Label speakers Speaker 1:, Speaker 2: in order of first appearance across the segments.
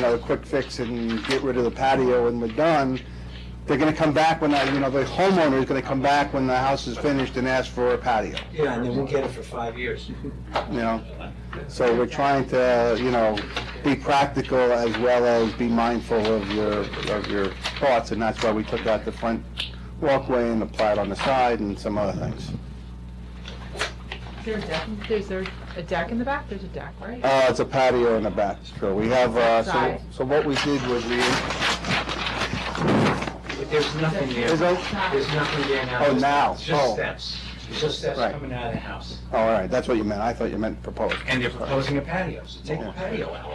Speaker 1: know, a quick fix and get rid of the patio and we're done, they're gonna come back when, that- you know, the homeowner is gonna come back when the house is finished and ask for a patio,
Speaker 2: Yeah, and they won't get it for five years.
Speaker 1: you know? So we're trying to, you know, be practical as well as be mindful of your, of your thoughts, and that's why we took out the front walkway and the plat on the side and some other things.
Speaker 3: Is there a deck, in- there's a, a deck in the back? There's a deck, right?
Speaker 1: Uh, it's a patio in the back, sure. We have, uh, so,
Speaker 3: Side.
Speaker 1: so what we did was we,
Speaker 2: But there's nothing there.
Speaker 1: Is there-
Speaker 2: There's nothing there now.
Speaker 1: Oh, now.
Speaker 2: It's
Speaker 1: Oh.
Speaker 2: just steps. It's just steps
Speaker 1: Right.
Speaker 2: coming out of the house.
Speaker 1: oh, all right, that's what you meant. I thought you meant proposed.
Speaker 2: And they're proposing a patio, so take the patio out.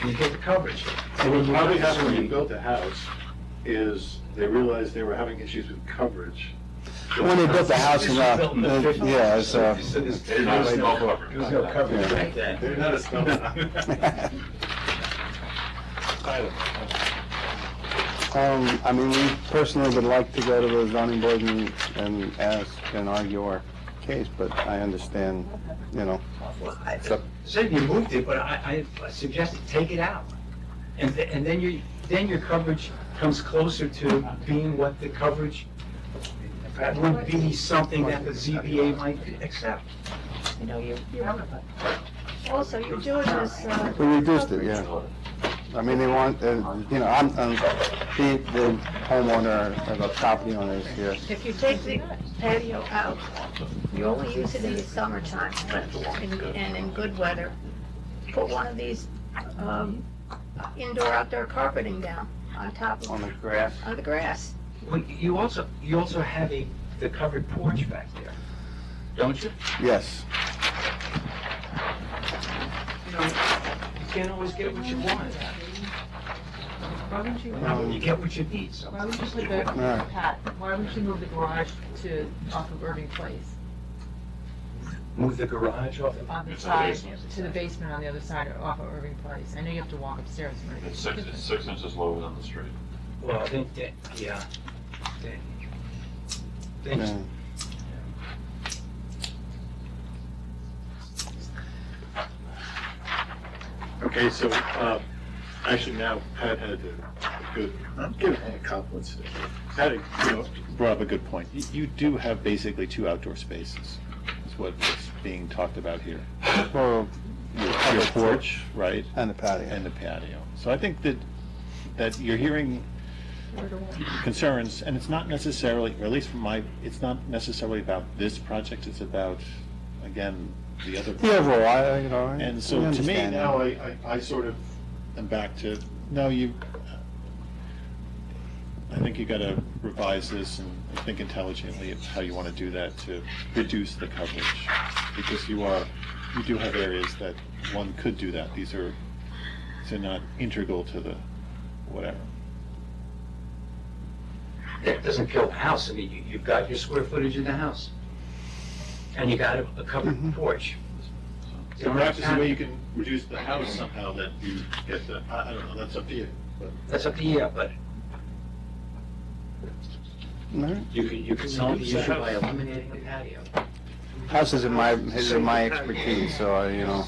Speaker 2: And you get the coverage.
Speaker 4: So what probably happened when you built the house is they realized they were having issues with coverage.
Speaker 1: When they built the house,
Speaker 2: This
Speaker 1: you
Speaker 2: was built in the
Speaker 1: know,
Speaker 2: 50s.
Speaker 1: yeah, it's, uh,
Speaker 2: So there's-
Speaker 4: They didn't have a
Speaker 2: there's
Speaker 4: small
Speaker 2: no-
Speaker 4: cover.
Speaker 2: There was no coverage
Speaker 1: Yeah.
Speaker 2: back then.
Speaker 4: They're not a small.
Speaker 1: um, I mean, we personally would like to go to the zoning board and, and ask and argue our case, but I understand, you know.
Speaker 2: Well, I
Speaker 1: So-
Speaker 2: Said you moved it, but I, I suggested take it out. And, th- and then your, then your coverage comes closer to being what the coverage would be something that the ZBA might accept. You know, you,
Speaker 5: Also, you're doing this, uh,
Speaker 1: We reduced it, yeah. I mean, they want, uh, you know, I'm, I'm, the, the homeowner, or the property owner is here.
Speaker 5: if you take the patio out, you only use it in the summertime, but in, and in good weather, put one of these, um, indoor outdoor carpeting down on top
Speaker 1: on
Speaker 5: of,
Speaker 1: the grass.
Speaker 5: on the grass.
Speaker 2: well, you also, you also have a, the covered porch back there, don't you?
Speaker 1: Yes,
Speaker 2: You know, you can't always get what you want.
Speaker 3: Why wouldn't you, why
Speaker 1: Um,
Speaker 2: You get what you need, so.
Speaker 3: wouldn't you put
Speaker 1: all
Speaker 3: the,
Speaker 1: right.
Speaker 3: Pat, why wouldn't you move the garage to, off of Irving Place?
Speaker 2: Move the garage off.
Speaker 3: On the
Speaker 6: It's
Speaker 3: side,
Speaker 6: on
Speaker 3: to the basement on the other side, or off of Irving Place? I know you have to walk upstairs, right?
Speaker 6: It's six, it's six inches lower than the street.
Speaker 2: Well, I think that, yeah. Then- then
Speaker 1: Yeah.
Speaker 4: Okay, so, um, actually now Pat had a good, I'm giving him compliments today. Pat, you know, brought up a good point. You- You do have basically two outdoor spaces, is what is being talked about here.
Speaker 1: Well,
Speaker 4: Your your porch, right,
Speaker 1: and the patio.
Speaker 4: and the patio. So I think that, that you're hearing concerns, and it's not necessarily, or at least from my, it's not necessarily about this project, it's about, again, the other.
Speaker 1: The overall, I, uh, you know. I-
Speaker 4: And
Speaker 1: I
Speaker 4: so to me
Speaker 1: understand
Speaker 4: now, I,
Speaker 1: that.
Speaker 4: I, I sort of am back to, no, you, I think you gotta revise this and think intelligently of how you wanna do that to reduce the coverage. Because you are, you do have areas that one could do that. These are, these are not integral to the, whatever.
Speaker 2: That doesn't kill the house, I mean, you, you've got your square footage in the house. And you got a a covered porch.
Speaker 4: So perhaps there's a way you can reduce the house somehow that you get the, I, I don't know, that's up to you. but-
Speaker 2: That's up to you, but
Speaker 1: All right.
Speaker 2: you can, you can solve the issue by eliminating the patio.
Speaker 1: House is in my, is in my expertise, so I, you know,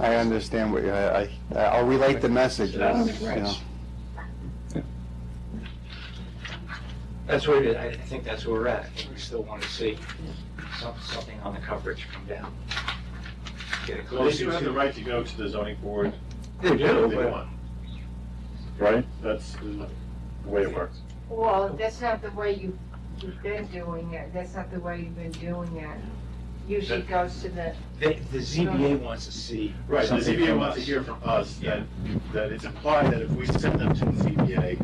Speaker 1: I understand what, you- I, I, I'll relate the message, you know.
Speaker 2: That's where, it is. I I think that's where we're at, I think we still want to see some, something on the coverage come down. Get it
Speaker 4: Well, they do
Speaker 2: closer
Speaker 4: have the
Speaker 2: to.
Speaker 4: right to go to the zoning board
Speaker 2: They do,
Speaker 4: They
Speaker 2: but
Speaker 4: want. Right? That's the way it works.
Speaker 7: Well, that's not the way you, you've been doing it, that's not the way you've been doing it. Usually
Speaker 4: That-
Speaker 7: goes to the,
Speaker 2: the, the ZBA wants to see.
Speaker 4: Right, the
Speaker 2: something
Speaker 4: ZBA
Speaker 2: from
Speaker 4: wants to
Speaker 2: us.
Speaker 4: hear from us that, that it's implied that if we send them to the ZBA,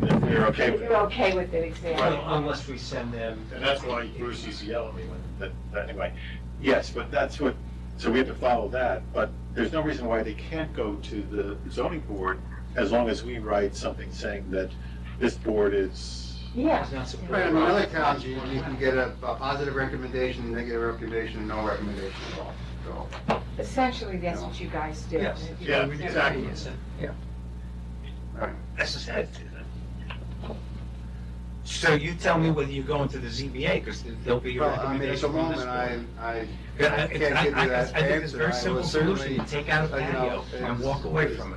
Speaker 4: that they're okay
Speaker 7: if
Speaker 4: with
Speaker 7: you're
Speaker 4: it.
Speaker 7: okay with it, exactly.
Speaker 2: Well, Unless we send them.
Speaker 4: And that's why Bruce used to yell at me when, that, that, anyway. Yes, but that's what, so we have to follow that, but there's no reason why they can't go to the zoning board as long as we write something saying that this board is,
Speaker 7: Yeah,
Speaker 2: It's not
Speaker 8: Right,
Speaker 2: supported.
Speaker 8: in other towns, you, you can get a, a positive recommendation, negative recommendation, no recommendation at all, so.
Speaker 7: essentially, that's what you guys do.
Speaker 2: Yes.
Speaker 4: yeah, exactly.
Speaker 2: Yeah.
Speaker 8: Right.
Speaker 2: That's just it. So you tell me whether you're going to the ZBA, because there'll be your
Speaker 8: Well, I mean, at the
Speaker 2: recommendation from this
Speaker 8: moment, I,
Speaker 2: board.
Speaker 8: I,
Speaker 2: Yeah, I,
Speaker 8: can't give you
Speaker 2: I- I-
Speaker 8: that
Speaker 2: I think it's
Speaker 8: answer.
Speaker 2: a
Speaker 8: I
Speaker 2: very simple
Speaker 8: was
Speaker 2: solution,
Speaker 8: certainly,
Speaker 2: take out a
Speaker 8: you know,
Speaker 2: patio and
Speaker 8: it's-
Speaker 2: walk away from it.